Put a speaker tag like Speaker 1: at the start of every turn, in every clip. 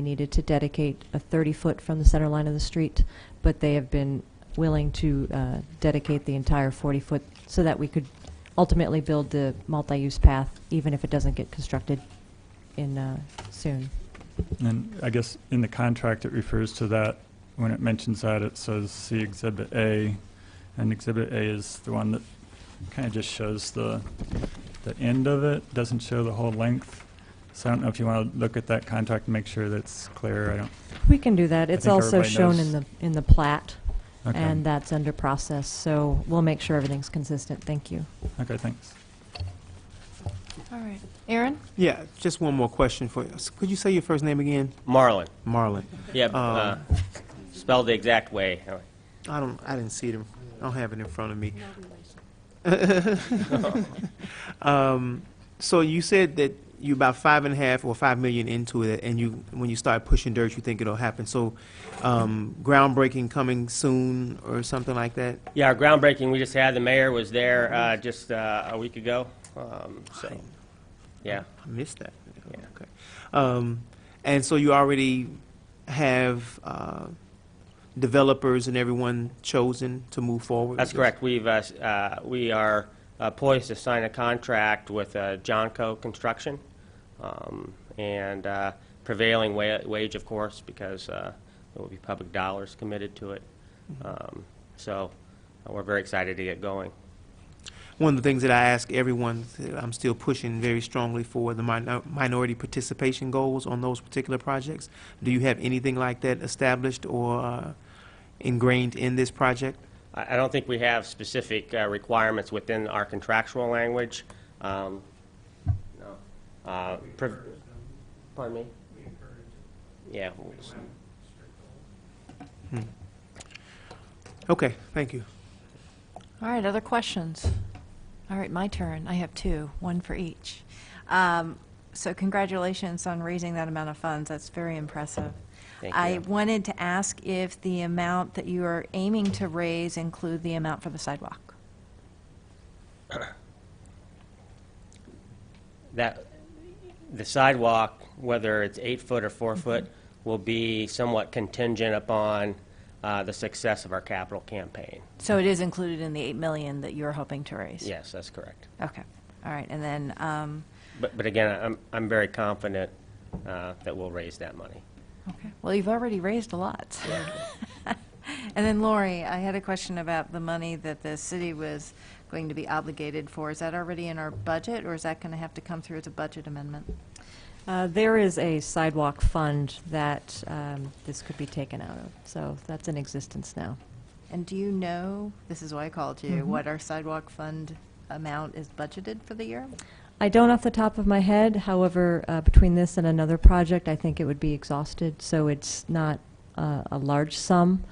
Speaker 1: They needed to dedicate a 30-foot from the center line of the street, but they have been willing to uh, dedicate the entire 40-foot so that we could ultimately build the multi-use path, even if it doesn't get constructed in, uh, soon.
Speaker 2: And I guess in the contract, it refers to that, when it mentions that, it says, see Exhibit A, and Exhibit A is the one that kind of just shows the, the end of it, doesn't show the whole length. So I don't know if you want to look at that contract and make sure that's clear, I don't,
Speaker 1: We can do that. It's
Speaker 2: think
Speaker 1: also
Speaker 2: everybody
Speaker 1: shown
Speaker 2: knows.
Speaker 1: in the, in the plat, and
Speaker 2: okay,
Speaker 1: that's under process, so we'll make sure everything's consistent. Thank you.
Speaker 2: okay, thanks.
Speaker 3: All right. Aaron?
Speaker 4: Yeah, just one more question for you. S- Could you say your first name again?
Speaker 5: Marlin.
Speaker 4: Marlon.
Speaker 5: Yeah, uh,
Speaker 4: Um,
Speaker 5: spelled the exact way.
Speaker 4: I don't, I didn't see them. I don't have it in front of me. Um, So you said that you about five and a half or five million into it, and you, when you start pushing dirt, you think it'll happen. So um, groundbreaking coming soon or something like that?
Speaker 5: Yeah, our groundbreaking we just had, the mayor was there uh, just uh, a week ago. Um, so, yeah.
Speaker 4: I missed that.
Speaker 5: Yeah.
Speaker 4: Okay. Um, And so you already have uh, developers and everyone chosen to move forward?
Speaker 5: That's
Speaker 4: with this?
Speaker 5: correct. We've, uh, s- uh, we are uh, poised to sign a contract with uh, Johnco Construction, um, and uh, prevailing wa- wage, of course, because uh, there will be public dollars committed to it. Um, So, uh, we're very excited to get going.
Speaker 4: One of the things that I ask everyone, that I'm still pushing very strongly for the minor- minority participation goals on those particular projects. Do you have anything like that established or uh, ingrained in this project?
Speaker 5: I I don't think we have specific uh, requirements within our contractual language. Um, No. Uh, pre- Pardon me? Yeah. w- s-
Speaker 4: Okay, thank you.
Speaker 3: All right, other questions? All right, my turn. I have two, one for each. Um, So congratulations on raising that amount of funds. That's very impressive.
Speaker 5: Thank
Speaker 3: I
Speaker 5: you.
Speaker 3: wanted to ask if the amount that you are aiming to raise include the amount for the sidewalk?
Speaker 5: That, the sidewalk, whether it's eight foot or four foot, will be somewhat contingent upon uh, the success of our capital campaign.
Speaker 3: So it is included in the 8 million that you're hoping to raise?
Speaker 5: Yes, that's correct.
Speaker 3: Okay, all right, and then, um,
Speaker 5: But, but again, I'm, I'm very confident uh, that we'll raise that money.
Speaker 3: Okay. Well, you've already raised a lot. And then Lori, I had a question about the money that the city was going to be obligated for. Is that already in our budget, or is that going to have to come through as a budget amendment?
Speaker 1: Uh, There is a sidewalk fund that um, this could be taken out of, so that's in existence now.
Speaker 3: And do you know, this is why I called you, what our sidewalk fund amount is budgeted for the year?
Speaker 1: I don't off the top of my head, however, uh, between this and another project, I think it would be exhausted, so it's not uh, a large sum.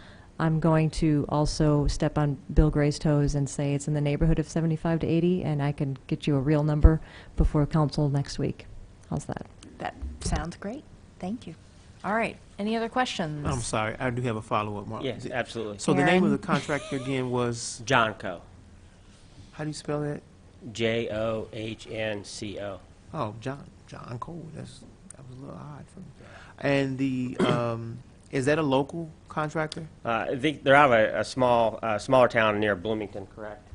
Speaker 1: I'm going to also step on Bill Gray's toes and say it's in the neighborhood of 75 to 80, and I can get you a real number before council next week. How's that?
Speaker 3: That sounds great. Thank you. All right. Any other questions?
Speaker 4: I'm sorry, I do have a follow-up, Mark.
Speaker 5: Yes, absolutely.
Speaker 4: So the name of
Speaker 3: Aaron.
Speaker 4: the contractor again was,
Speaker 5: Johnco,
Speaker 4: how do you spell that?
Speaker 5: J-O-H-N-C-O.
Speaker 4: Oh, John, John Cole, that's, that was a little odd for me. And the, um, is that a local contractor?
Speaker 5: Uh, I think they're out of a, a small, uh, smaller town near Bloomington, correct?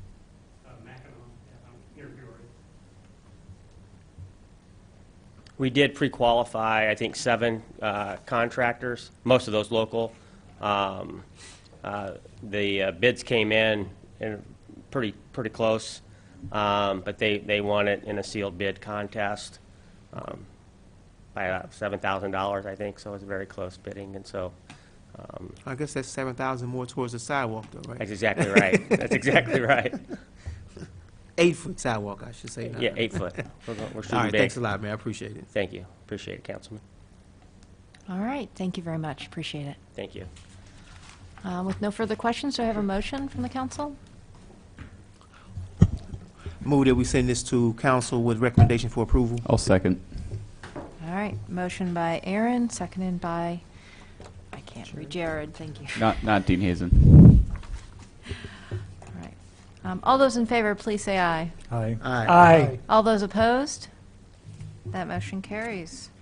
Speaker 5: We did pre-qualify, I think, seven uh, contractors, most of those local. Um, uh, The uh, bids came in and pretty, pretty close, um, but they, they won it in a sealed bid contest um, by about $7,000, I think, so it was very close bidding, and so um,
Speaker 4: I guess that's seven thousand more towards the sidewalk though, right?
Speaker 5: That's exactly right. That's exactly right.
Speaker 4: Eight-foot sidewalk, I should say. not-
Speaker 5: Yeah, eight foot. We're go- we're
Speaker 4: All
Speaker 5: shooting
Speaker 4: right,
Speaker 5: big.
Speaker 4: thanks a lot, man, I appreciate it.
Speaker 5: Thank you. Appreciate it, Councilman.
Speaker 3: All right. Thank you very much. Appreciate it.
Speaker 5: Thank you.
Speaker 3: Um, With no further questions, do I have a motion from the council?
Speaker 4: Move that we send this to council with recommendation for approval.
Speaker 6: I'll second.
Speaker 3: All right, motion by Aaron, seconded by, I can't read Jared, thank you.
Speaker 6: Not, not Dean Hazen.
Speaker 3: All right. Um, All those in favor, please say aye.
Speaker 2: Hi.
Speaker 4: Aye.
Speaker 3: All those opposed? That motion carries.